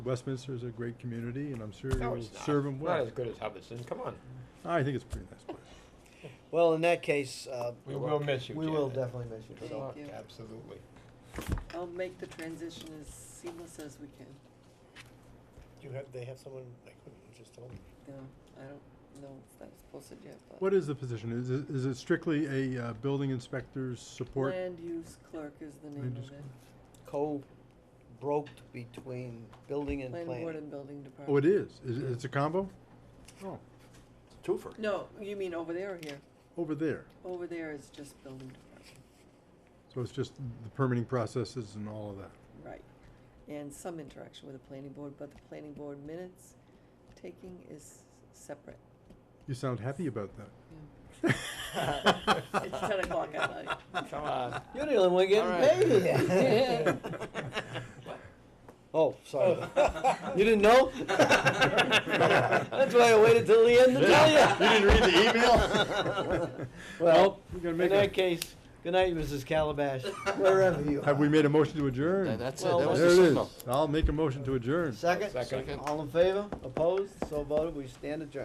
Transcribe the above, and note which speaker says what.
Speaker 1: Westminster is a great community, and I'm sure
Speaker 2: No,
Speaker 1: you'll
Speaker 2: it's not.
Speaker 1: serve them
Speaker 2: Not
Speaker 1: well.
Speaker 2: as good as Hubbardston, come on.
Speaker 1: I think it's a pretty nice place.
Speaker 3: Well, in that case, uh,
Speaker 2: We will miss you,
Speaker 3: we will
Speaker 2: Janet.
Speaker 3: definitely miss you,
Speaker 2: Good
Speaker 3: so.
Speaker 2: luck,
Speaker 4: Thank you.
Speaker 2: absolutely.
Speaker 4: I'll make the transition as seamless as we can.
Speaker 3: Do you have, they have someone, like, just told me?
Speaker 4: No, I don't know if that's posted yet, but.
Speaker 1: What is the position? Is it, is it strictly a uh, building inspector's support?
Speaker 4: Land use clerk is the name
Speaker 1: Land use
Speaker 4: of it.
Speaker 3: Co-broked between building and
Speaker 4: Land board
Speaker 3: planning.
Speaker 4: and building department.
Speaker 1: Oh, it is? Is, it- it's a combo? Oh,
Speaker 2: Twofer.
Speaker 4: No, you mean over there or here?
Speaker 1: over there.
Speaker 4: Over there is just building department,
Speaker 1: So it's just the permitting processes and all of that.
Speaker 4: right. And some interaction with the planning board, but the planning board minutes taking is separate.
Speaker 1: You sound happy about that.
Speaker 3: It's 10
Speaker 4: o'clock at night.
Speaker 2: Come on.
Speaker 3: You're the only one getting
Speaker 2: All
Speaker 3: paid. Oh, sorry.
Speaker 2: Oh.
Speaker 3: You didn't know? That's why I waited till the end to tell you.
Speaker 2: You didn't read the
Speaker 1: email?
Speaker 3: Well,
Speaker 1: We're gonna
Speaker 3: in
Speaker 1: make
Speaker 3: that
Speaker 1: a-
Speaker 3: case, good night, Mrs. Calabash, wherever you are.
Speaker 1: Have we made a motion to adjourn?
Speaker 5: Th- That's it,
Speaker 3: Well,
Speaker 5: that was
Speaker 1: There
Speaker 5: the
Speaker 1: it is.
Speaker 5: signal.
Speaker 1: I'll make a motion to adjourn.
Speaker 3: Second?
Speaker 2: Second.
Speaker 3: All in favor? Opposed? So voted. We stand adjourned.